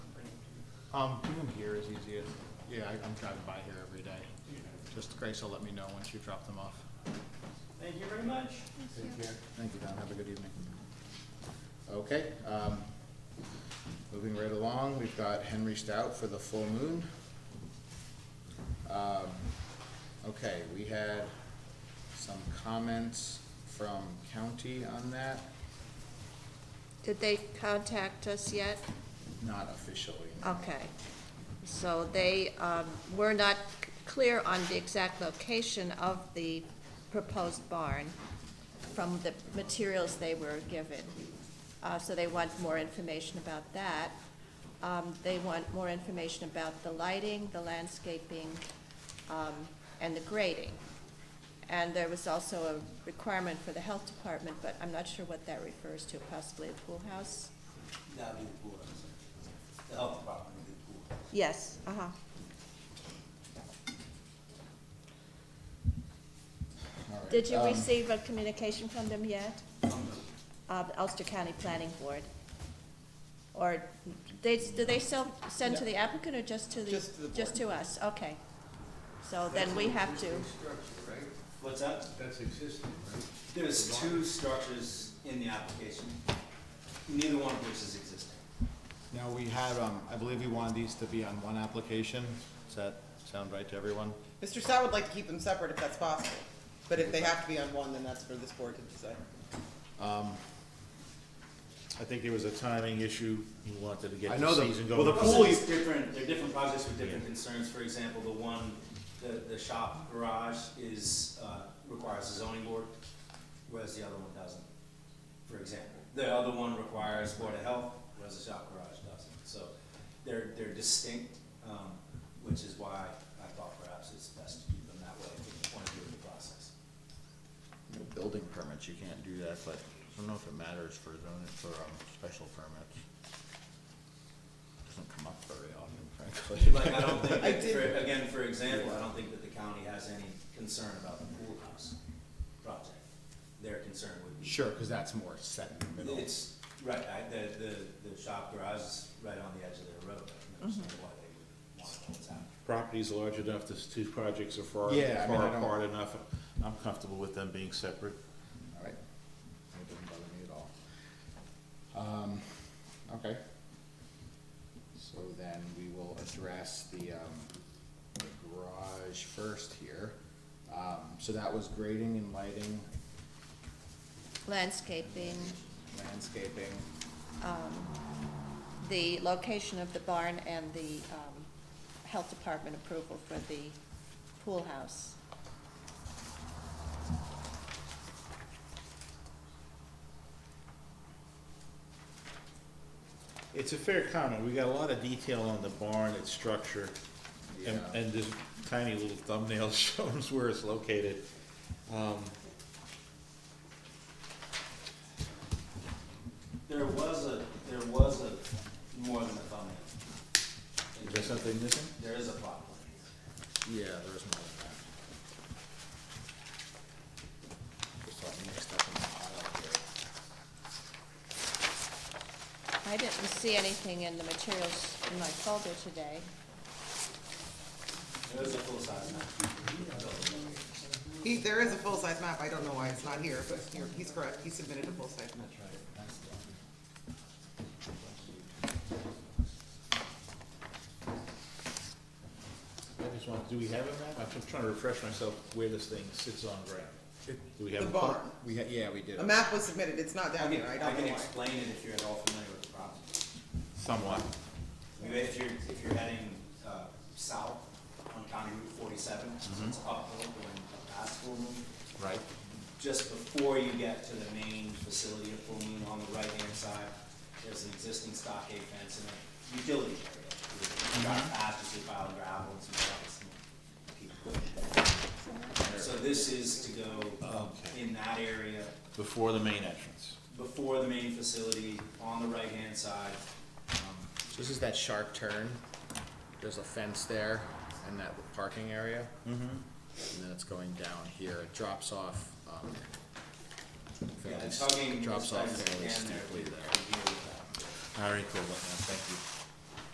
Um, doing here is easiest. Yeah, I- I'm driving by here every day. Just Grace will let me know once you drop them off. Thank you very much. Take care. Thank you, Don. Have a good evening. Okay, um, moving right along, we've got Henry Stout for the full moon. Um, okay, we had some comments from county on that, Did they contact us yet? not officially. Okay. So they um, were not c- clear on the exact location of the proposed barn from the materials they were given. Uh, So they want more information about that. Um, They want more information about the lighting, the landscaping, um, and the grading. And there was also a requirement for the health department, but I'm not sure what that refers to, possibly a pool house? That'd be the pool house. The health department would be the pool house. Yes, uh-huh. All right, Did you um, receive a communication from them yet? Um, Uh, the Ulster County Planning Board? Or they, do they still send to the applicant or just to the? Just to the board. us, okay. So then we have to, What's that? That's existing, right? There's two structures in the application, neither one of which is existing. Now, we had, um, I believe we wanted these to be on one application. Does that sound right to everyone? Mr. Stout would like to keep them separate if that's possible, but if they have to be on one, then that's for this board to decide. I think there was a timing issue, he wanted to I get know the the- season well, going. the Also, pool there's different, there are different projects with different concerns, for example, the one, the, the shop garage is, uh, requires a zoning board, whereas the other one doesn't, for example. The other one requires board of health, whereas the shop garage doesn't, so they're, they're distinct, um, which is why I thought perhaps it's best to keep them that way from the point of view of the process. No Building permits, you can't do that, but I don't know if it matters for zoning, for, um, special permits. Doesn't come up very often, Like, frankly. I don't think, I that did- for, again, for example, I don't think that the county has any concern about the pool house project. Their concern would be. Sure, cause that's more set in the middle. It's, right, I, the, the, the shop garage is right on the edge of their road, I can understand why they would want to hold out. Property's large enough, the two projects are far, Yeah, I mean, I far don't- apart enough, I'm comfortable with them being separate. Alright, it doesn't bother me at all. Um, okay. So then we will address the, um, the garage first here. Um, so that was grading and lighting, landscaping, landscaping, the location of the barn and the, um, health department approval for the pool house. It's a fair comment, we got a lot of detail on the barn, its structure, and, Yeah. and this tiny little thumbnail shows where it's located. Um, There was a, there was a, more than a thumbnail. Is there something missing? There is a plot plan. Yeah, there is more than that. Just got mixed up in the pile here. I didn't see anything in the materials in my folder today. There is a full-size map. He, there is a full-size map, I don't know why it's not here, but you're- he's correct, he submitted a full-size map. I just want, do we have a map? I'm just trying to refresh myself where this thing sits on ground. Do we have? The a photo? barn, We, ha- yeah, we did. a map was submitted, it's not I down can, here, I I don't can know why. explain it if you're at all familiar with the property. Somewhat. I mean, If you're, if you're heading, uh, south on County Route forty-seven, so it's uphill going past Full Moon, Right. just before you get to the main facility of Full Moon on the right-hand side, there's an existing stockade fence and a utility area. You've got patches with pile of gravel and some rocks and keep pushing. So this is to go um, Okay. in that area Before the main entrance. before the main facility, on the right-hand side. Um, So This is that sharp turn. There's a fence there and that parking area. Mm-hmm. And then it's going down here. It drops off, um, Yeah, fairly, s- tugging drops off as you fairly can there, steeply we- there. we deal with that. I already called that now, thank you.